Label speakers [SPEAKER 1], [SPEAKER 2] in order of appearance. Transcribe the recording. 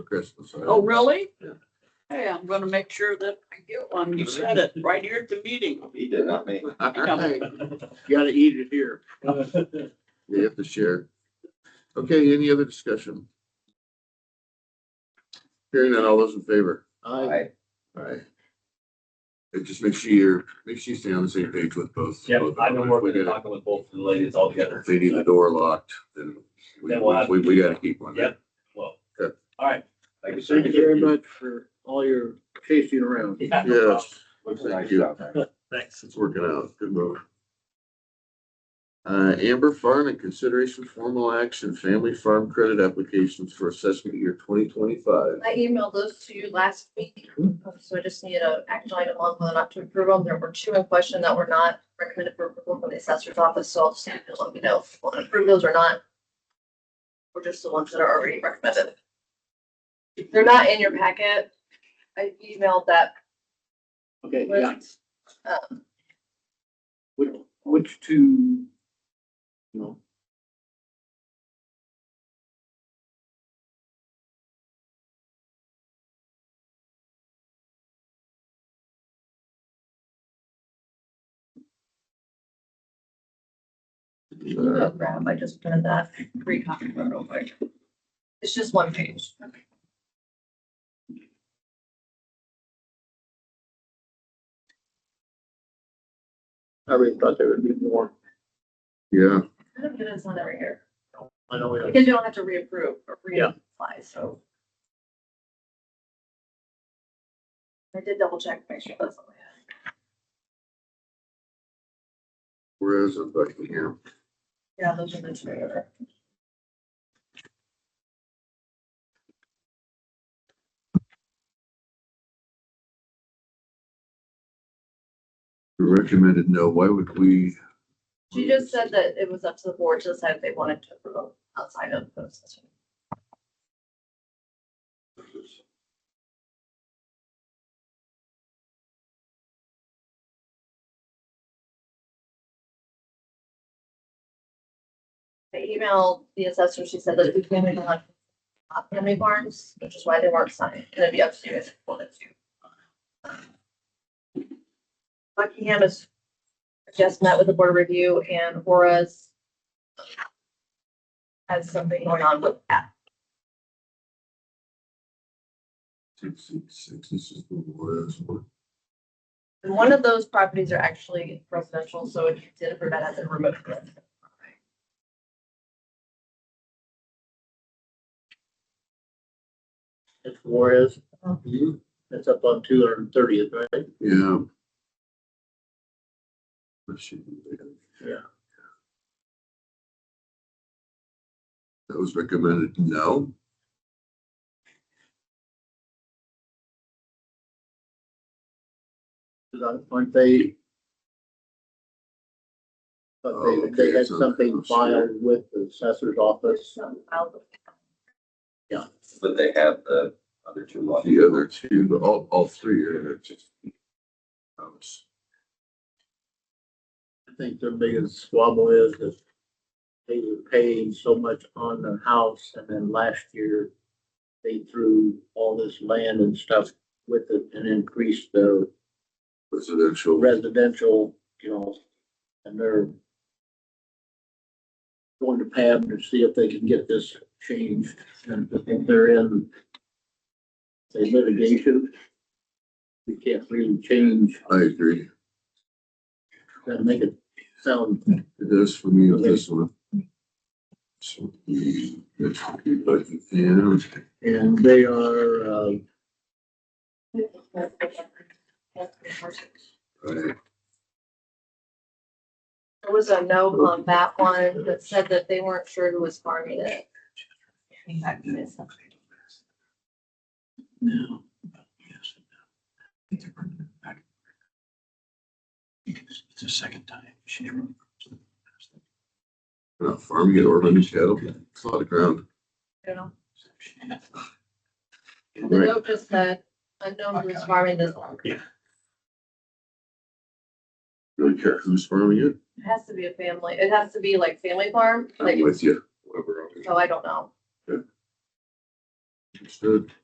[SPEAKER 1] for Christmas. I-
[SPEAKER 2] Oh, really?
[SPEAKER 1] Yeah.
[SPEAKER 2] Hey, I'm gonna make sure that I get one. You said it right here at the meeting.
[SPEAKER 3] He did, not me.
[SPEAKER 1] All
[SPEAKER 4] Oh,
[SPEAKER 1] right. Gotta eat it here. We have to share. Okay, any other discussion? Hearing that, all those in favor?
[SPEAKER 3] I,
[SPEAKER 1] Aye. And just make sure you're, make sure you stay on the same page with both.
[SPEAKER 5] Yeah,
[SPEAKER 1] both
[SPEAKER 5] I've been
[SPEAKER 1] of them.
[SPEAKER 5] working
[SPEAKER 1] If we
[SPEAKER 5] and
[SPEAKER 1] gotta-
[SPEAKER 5] talking with both of the ladies all together.
[SPEAKER 1] If they need the door locked, then we,
[SPEAKER 5] Then we'll have-
[SPEAKER 1] we, we gotta keep one.
[SPEAKER 5] Yep. Well,
[SPEAKER 1] Good.
[SPEAKER 5] all right.
[SPEAKER 3] like you
[SPEAKER 4] Thank
[SPEAKER 3] said,
[SPEAKER 4] you very much for all your chasing around.
[SPEAKER 5] Yeah, no problem.
[SPEAKER 1] Yes,
[SPEAKER 3] looks nice out there.
[SPEAKER 5] Thanks.
[SPEAKER 1] it's working out. Good move. Uh, Amber Farm and consideration formal action, family farm credit applications for assessment year twenty twenty-five.
[SPEAKER 6] I emailed those to you last week, so I just needed an action item on whether or not to approve them. There were two in question that were not recommended for approval from the assessor's office, so I'll just need you to let me know if you want to approve those or not. Or just the ones that are already recommended. They're not in your packet. I emailed that
[SPEAKER 4] Okay, yeah.
[SPEAKER 6] list. Um,
[SPEAKER 4] Which, which two? No.
[SPEAKER 1] Uh,
[SPEAKER 6] grab, I just printed that, recopy that real quick. It's just one page.
[SPEAKER 4] I really thought there would be more.
[SPEAKER 1] Yeah,
[SPEAKER 6] I don't get it, it's not every year.
[SPEAKER 4] I know we have
[SPEAKER 6] Because you don't have to reapprove or
[SPEAKER 4] Yeah.
[SPEAKER 6] reapply, so. I did double check, make sure that's all I had.
[SPEAKER 1] where is it, Buckingham?
[SPEAKER 6] Yeah, those are the two.
[SPEAKER 1] We Recommended no, why would we?
[SPEAKER 6] She just said that it was up to the board to decide if they wanted to approve outside of the session. I emailed the assessor, she said that it became a lot of family farms, which is why they weren't signed, and it'd be up to you if you wanted to. Buckingham is just met with the board review and Horace has something going on with that.
[SPEAKER 1] Six, six, six, this is the last one.
[SPEAKER 6] And one of those properties are actually residential, so if you did approve that as a remote. residential property.
[SPEAKER 4] It's Juarez.
[SPEAKER 1] Mhm.
[SPEAKER 4] That's up on two hundred and thirtieth, right?
[SPEAKER 1] Yeah. Let's see.
[SPEAKER 4] Yeah.
[SPEAKER 1] That was recommended, no.
[SPEAKER 4] Cause I, aren't they?
[SPEAKER 1] Oh,
[SPEAKER 4] But
[SPEAKER 1] okay,
[SPEAKER 4] they, they had
[SPEAKER 1] so-
[SPEAKER 4] something filed with the assessor's
[SPEAKER 6] There's
[SPEAKER 4] office.
[SPEAKER 6] some wild-
[SPEAKER 3] But they have the other two lots.
[SPEAKER 1] The other two, but all, all three are just. Oh, it's-
[SPEAKER 4] I think their biggest squabble is that they were paying so much on the house and then last year they threw all this land and stuff with it and increased their
[SPEAKER 1] Residential.
[SPEAKER 4] residential, you know, and they're going to Pam to see if they can get this changed and if they're in say litigation. We can't really change
[SPEAKER 1] I agree.
[SPEAKER 4] and make it sound
[SPEAKER 1] It is for me on this one. So, it's- but, yeah,
[SPEAKER 4] And they are, uh,
[SPEAKER 1] right.
[SPEAKER 6] There was a note on that one that said that they weren't sure who was farming it.
[SPEAKER 4] no. It's the second time she ever.
[SPEAKER 1] Not farming it or running cattle, it's a lot of ground.
[SPEAKER 6] You know, The
[SPEAKER 1] Right,
[SPEAKER 6] note just said, unknown who was farming this one.
[SPEAKER 1] really care who's farming it,
[SPEAKER 6] It has to be a family, it has to be like family farm, like,
[SPEAKER 1] I'm with you. Whoever owns it.
[SPEAKER 6] so I don't know.
[SPEAKER 1] Understood.